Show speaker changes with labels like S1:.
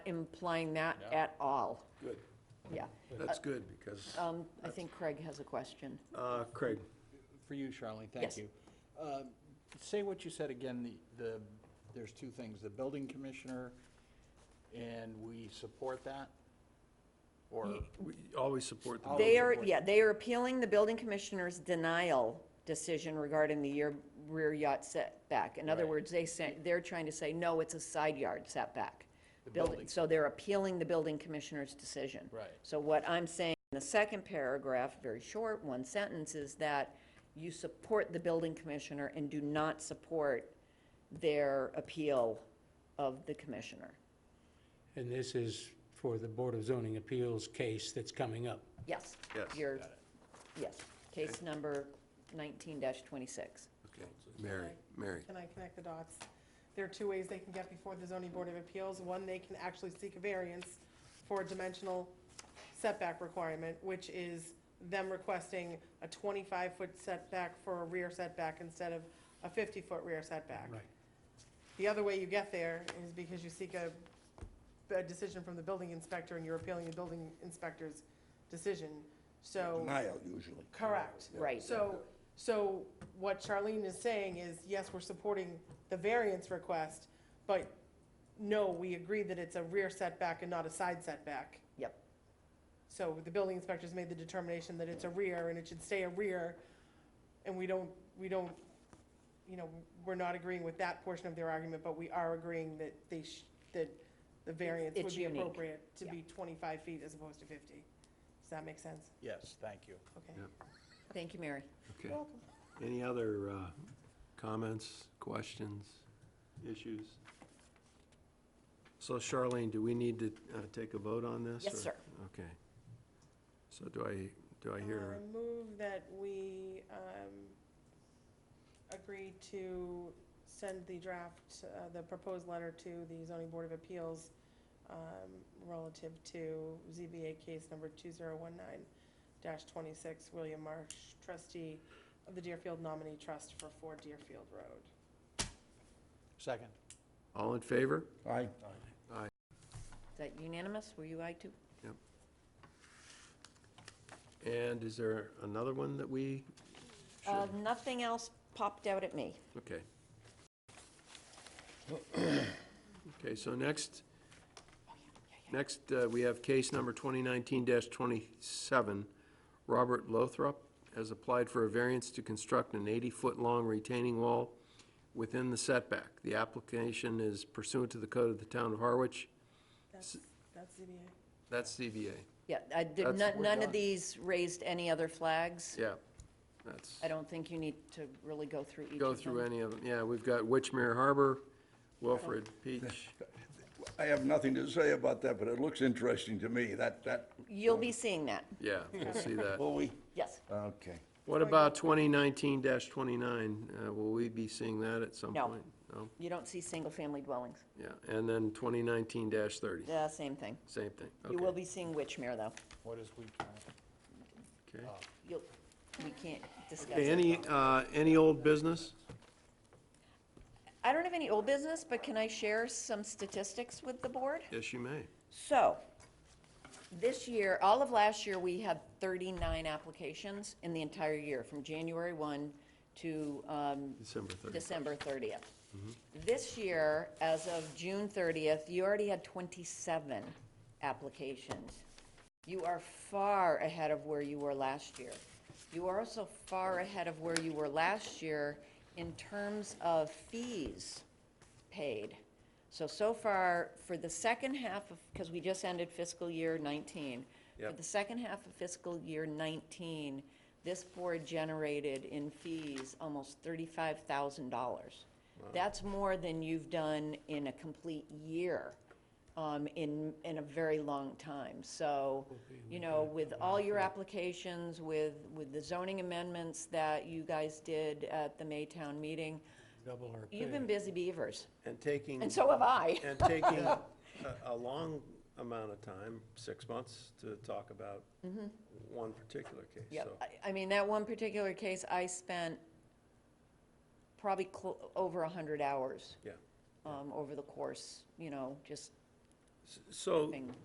S1: implying that at all.
S2: Good,
S1: Yeah.
S2: that's good, because,
S1: Um, I think Craig has a question.
S2: uh, Craig,
S3: For you, Charlene,
S1: Yes.
S3: thank you. Um, Say what you said again, the- the, there's two things, the building commissioner, and we support that? Or,
S2: we always support the.
S3: Always.
S1: They
S2: building.
S1: are,
S3: boy.
S1: yeah, they are appealing the building commissioner's denial decision regarding the year rear yacht setback. In other
S3: Right.
S1: words, they say, they're trying to say, no, it's a side yard setback.
S3: The building.
S1: So they're appealing the building commissioner's decision.
S3: Right.
S1: So what I'm saying in the second paragraph, very short, one sentence, is that you support the building commissioner and do not support their appeal of the commissioner.
S4: And this is for the Board of Zoning Appeals case that's coming up.
S1: Yes.
S2: Yes.
S1: Your, yes, case number nineteen twenty-six.
S2: Okay, Mary, Mary,
S5: Can I connect the dots? There are two ways they can get before the zoning board of appeals. One, they can actually seek a variance for a dimensional setback requirement, which is them requesting a 25-foot setback for a rear setback instead of a 50-foot rear setback. The other way you get there is because you seek a, a decision from the building inspector and you're appealing the building inspector's decision, so.
S6: Denial usually.
S5: Correct.
S1: Right.
S5: So, so what Charlene is saying is, yes, we're supporting the variance request, but no, we agree that it's a rear setback and not a side setback.
S1: Yep.
S5: So the building inspector's made the determination that it's a rear and it should stay a rear, and we don't, we don't, you know, we're not agreeing with that portion of their argument, but we are agreeing that they, sh- that the variance
S1: it's
S5: would be
S1: unique.
S5: appropriate to
S1: Yeah.
S5: be twenty-five feet as opposed to fifty. Does that make sense?
S3: yes, thank you.
S5: Okay.
S2: Yeah.
S1: Thank you, Mary.
S2: okay. Any other, uh, comments, questions, issues? So Charlene, do we need to, uh, take a vote on this?
S1: Yes,
S2: or-
S1: sir.
S2: Okay. So do I, do I hear,
S1: Um,
S5: Uh, Move that we um, agree to send the draft, uh, the proposed letter to the zoning board of appeals um, relative to ZBA case number 2019-26, William Marsh, trustee of the Deerfield Nominee Trust for 4 Deerfield Road.
S3: Second.
S2: all in favor?
S6: Aye.
S1: Is that unanimous? Were you aye too?
S2: And is there another one that we
S1: Uh,
S2: should,
S1: nothing else popped out at me.
S2: okay. Okay, so next, next, uh, we have case number 2019-27, Robert Lothrop has applied for a variance to construct an 80-foot-long retaining wall within the setback. The application is pursuant to the code of the town of Harwich.
S5: That's, that's ZBA.
S2: That's CBA.
S1: Yeah, I did,
S2: That's-
S1: none,
S2: we're
S1: none of
S2: done.
S1: these raised any other flags.
S2: yeah. That's,
S1: I don't think you need to really go through each of them.
S2: go through any of them. Yeah, we've got Witchmere Harbor, Wilfred
S1: Oh.
S2: Peach.
S6: I have nothing to say about that, but it looks interesting to me, that, that,
S1: You'll be seeing that.
S2: Yeah, we'll see that.
S6: Bowie.
S1: Yes.
S6: Okay.
S2: What about twenty nineteen twenty-nine? Uh, Will we be seeing that at some
S1: No.
S2: point? No.
S1: You don't see single-family dwellings.
S2: Yeah, and then twenty nineteen thirty,
S1: Yeah, same thing.
S2: same thing.
S1: You will
S2: Okay.
S1: be seeing Witchmere, though.
S3: What is we,
S2: Okay.
S1: You'll, we can't discuss
S2: Okay,
S1: it.
S2: any, uh, any old business?
S1: I don't have any old business, but can I share some statistics with the board?
S2: Yes, you may.
S1: So, this year, all of last year, we had 39 applications in the entire year, from January 1 to um,
S2: December thirty.
S1: December 30th. This year, as of June 30th, you already had 27 applications. You are far ahead of where you were last year. You are also far ahead of where you were last year in terms of fees paid. So, so far, for the second half of, because we just ended fiscal year 19. For
S2: Yep.
S1: the second half of fiscal year 19, this board generated in fees almost $35,000. That's more than you've done in a complete year um, in, in a very long time. So, you know, with all your applications, with, with the zoning amendments that you guys did at the Maytown meeting,
S4: Double our
S1: you've
S4: pay.
S1: been busy beavers,
S2: And taking,
S1: and so have I.
S2: and taking a, a long amount of time, six months, to talk about
S1: Mm-hmm.
S2: one particular case,
S1: Yeah,
S2: so.
S1: I, I mean, that one particular case, I spent probably clo- over a hundred hours.
S2: Yeah.
S1: Um, over the course, you know, just
S7: So
S2: thing.